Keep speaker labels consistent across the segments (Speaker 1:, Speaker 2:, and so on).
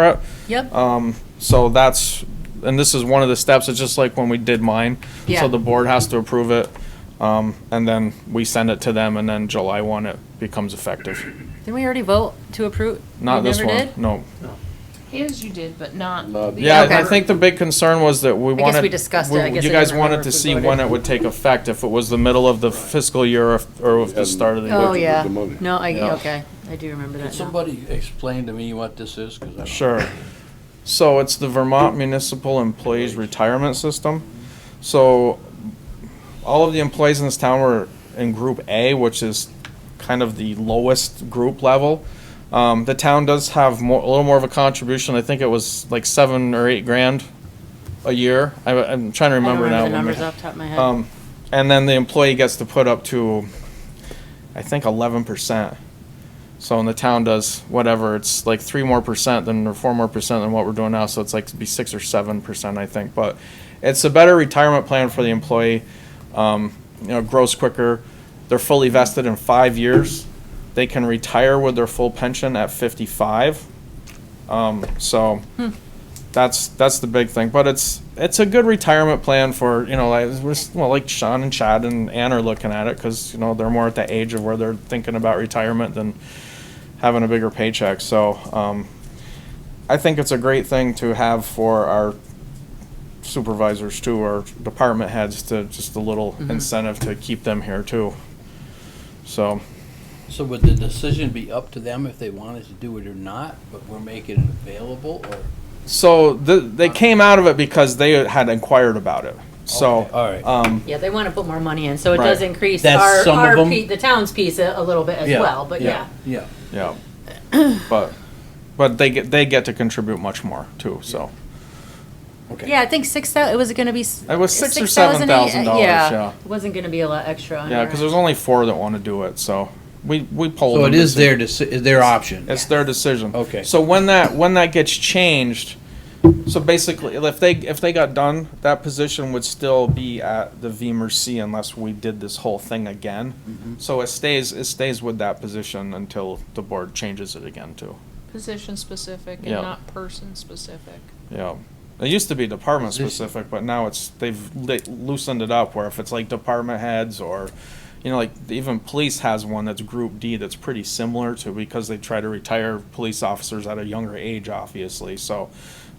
Speaker 1: for it.
Speaker 2: Yep.
Speaker 1: Um, so that's, and this is one of the steps, it's just like when we did mine.
Speaker 2: Yeah.
Speaker 1: So the board has to approve it, um, and then we send it to them, and then July one, it becomes effective.
Speaker 2: Didn't we already vote to approve?
Speaker 1: Not
Speaker 2: We
Speaker 1: this
Speaker 2: never
Speaker 1: one,
Speaker 2: did?
Speaker 1: no.
Speaker 3: His you did, but not.
Speaker 4: Not-
Speaker 3: the
Speaker 1: Yeah,
Speaker 2: Okay.
Speaker 1: I
Speaker 3: other.
Speaker 1: think the big concern was that we
Speaker 2: guess
Speaker 1: wanted.
Speaker 2: we discussed it. I
Speaker 1: we-
Speaker 2: guess
Speaker 1: You
Speaker 2: I
Speaker 1: guys
Speaker 2: don't
Speaker 1: wanted
Speaker 2: remember
Speaker 1: to
Speaker 2: if we
Speaker 1: see
Speaker 2: voted.
Speaker 1: when it would take effect, if it was the middle of the fiscal year or if- or if the start of the year.
Speaker 2: Oh,
Speaker 4: Budget
Speaker 2: yeah.
Speaker 4: with the money.
Speaker 2: No, I,
Speaker 1: Yeah.
Speaker 2: okay, I do remember
Speaker 5: Could
Speaker 2: that now.
Speaker 5: somebody explain to me what this is? 'Cause I don't-
Speaker 1: Sure. So it's the Vermont Municipal Employees Retirement System. So all of the employees in this town were in Group A, which is kind of the lowest group level. Um, the town does have more, a little more of a contribution. I think it was like seven or eight grand a year. I, I'm trying to
Speaker 2: I don't
Speaker 1: remember now.
Speaker 2: remember the numbers off the top of my head.
Speaker 1: Um, and then the employee gets to put up to, I think, eleven percent. So when the town does whatever, it's like three more percent than, or four more percent than what we're doing now, so it's like to be six or seven percent, I think, but it's a better retirement plan for the employee. Um, you know, grows quicker, they're fully vested in five years, they can retire with their full pension at fifty-five. Um, so, that's that's the big thing. But it's it's a good retirement plan for you know like we're, s- well like Sean and Chad and Ann are looking at it because you know they're more at the age of where they're thinking about retirement than having a bigger paycheck. So um, I think it's a great thing to have for our supervisors too or department heads to just a little incentive to keep them here too. So
Speaker 5: So would the decision be up to them if they wanted to do it or not, but we're making it available or?
Speaker 1: so the, they came out of it because they had inquired about it. So um,
Speaker 5: Okay, All right.
Speaker 2: Yeah, they want to put more money in, so it does
Speaker 1: Right.
Speaker 2: increase
Speaker 5: That's
Speaker 2: our,
Speaker 5: some of
Speaker 2: our,
Speaker 5: them.
Speaker 2: pe- the town's piece a a little bit as well, but yeah.
Speaker 5: Yeah.
Speaker 1: Yeah. But, but they get, they get to contribute much more too, so.
Speaker 5: Okay.
Speaker 2: Yeah, I think six thousand. it was gonna be. s-
Speaker 1: It was six or
Speaker 2: $6,000,
Speaker 1: $7,000, yeah.
Speaker 2: It wasn't gonna be a lot extra on
Speaker 1: Yeah,
Speaker 2: our
Speaker 1: because
Speaker 2: end.
Speaker 1: there's only four that want to do it, so we, we polled.
Speaker 5: So
Speaker 1: them
Speaker 5: it
Speaker 1: to
Speaker 5: is
Speaker 1: see-
Speaker 5: their, deci- is their option.
Speaker 1: It's their decision.
Speaker 5: Okay.
Speaker 1: So when that, when that gets changed, so basically, if they, if they got done, that position would still be at the VMRC unless we did this whole thing
Speaker 5: Mm-hmm.
Speaker 1: again. So it stays, it stays with that position until the board changes it again too.
Speaker 3: Position specific and
Speaker 1: Yeah.
Speaker 3: not person specific.
Speaker 1: Yeah. It used to be department
Speaker 5: Position.
Speaker 1: specific, but now it's, they've li- loosened it up where if it's like department heads or, you know, like even police has one that's group D that's pretty similar to, because they try to retire police officers at a younger age, obviously, so,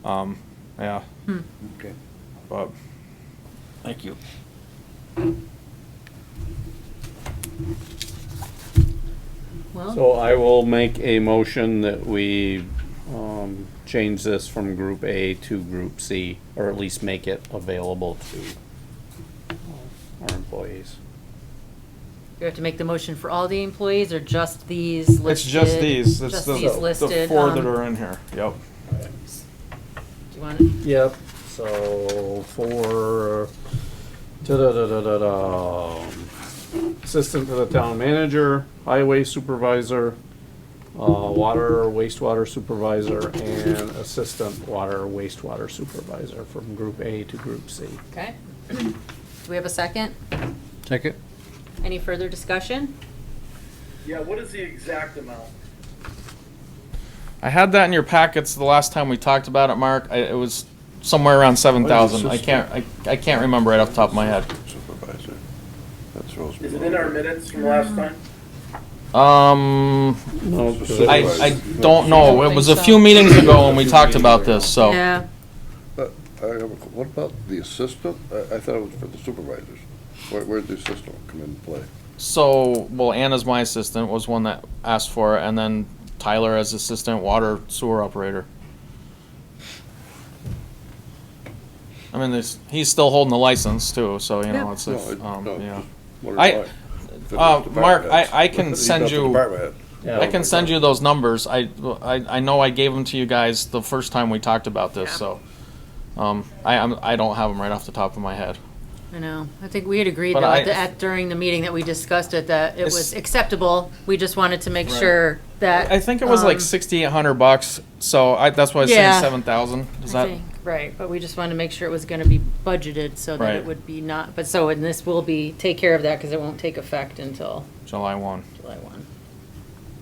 Speaker 1: um, yeah,
Speaker 5: Okay.
Speaker 1: but,
Speaker 5: Thank you.
Speaker 2: Well,
Speaker 4: So I will make a motion that we, um, change this from group A to group C, or at least make it available to um, our employees.
Speaker 2: you have to make the motion for all the employees or just these listed?
Speaker 1: it's just these, it's
Speaker 2: Just
Speaker 1: the,
Speaker 2: these
Speaker 1: the
Speaker 2: listed,
Speaker 1: four that
Speaker 2: um,
Speaker 1: are in here, yep.
Speaker 2: Do you want it?
Speaker 4: Yep, so for, da-da-da-da-da-da, assistant to the town manager, highway supervisor, uh, water wastewater supervisor, and assistant water wastewater supervisor from group A to group C.
Speaker 2: Okay. Do we have a second?
Speaker 5: Second.
Speaker 2: Any further discussion?
Speaker 6: Yeah, what is the exact amount?
Speaker 1: I had that in your packets the last time we talked about it, Mark, I, it was somewhere around seven thousand, I can't, I, I can't remember right off the top of my head.
Speaker 7: Supervisor. That's
Speaker 6: Is it in our minutes from last time?
Speaker 1: Um,
Speaker 4: No,
Speaker 1: I,
Speaker 7: Right.
Speaker 1: I don't know. It was a few meetings ago when we talked about this, so.
Speaker 2: Yeah.
Speaker 7: What about the assistant? I, I thought it was for the supervisors. Where, where'd the assistant come in and play?
Speaker 1: So, well, Anna's my assistant, was one that asked for it, and then Tyler as assistant water sewer operator. I mean, this, he's still holding the license too, so, you know, it's,
Speaker 7: No,
Speaker 1: if,
Speaker 7: it-
Speaker 1: um,
Speaker 7: no,
Speaker 1: yeah.
Speaker 7: just wondered
Speaker 1: I-
Speaker 7: why. If it was
Speaker 1: uh,
Speaker 7: department
Speaker 1: Mark, I-
Speaker 7: heads.
Speaker 1: I can
Speaker 7: He's
Speaker 1: send
Speaker 7: not the
Speaker 1: you-
Speaker 7: department head.
Speaker 1: I can send you those numbers. I, I, I know I gave them to you guys the first time we talked about this, so. Um, I, I'm, I don't have them right off the top of my head.
Speaker 2: I know. I think we had agreed
Speaker 1: But
Speaker 2: though, at
Speaker 1: I-
Speaker 2: the- at, during the meeting that we discussed it, that it
Speaker 1: It's-
Speaker 2: was acceptable. We just wanted to make sure that.
Speaker 1: I think it was
Speaker 2: um,
Speaker 1: like sixty-eight hundred bucks, so I, that's why I was
Speaker 2: Yeah.
Speaker 1: saying seven thousand. Is
Speaker 2: I
Speaker 1: that?
Speaker 2: think, Right, but we just wanted to make sure it was gonna be budgeted so that
Speaker 1: Right.
Speaker 2: it would be not, but so, and this will be, take care of that because it won't take effect until
Speaker 1: July one,
Speaker 2: July one.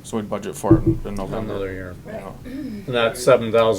Speaker 1: so we'd budget for it in in November.
Speaker 4: Another year.
Speaker 1: you know.
Speaker 4: And that's seven thousand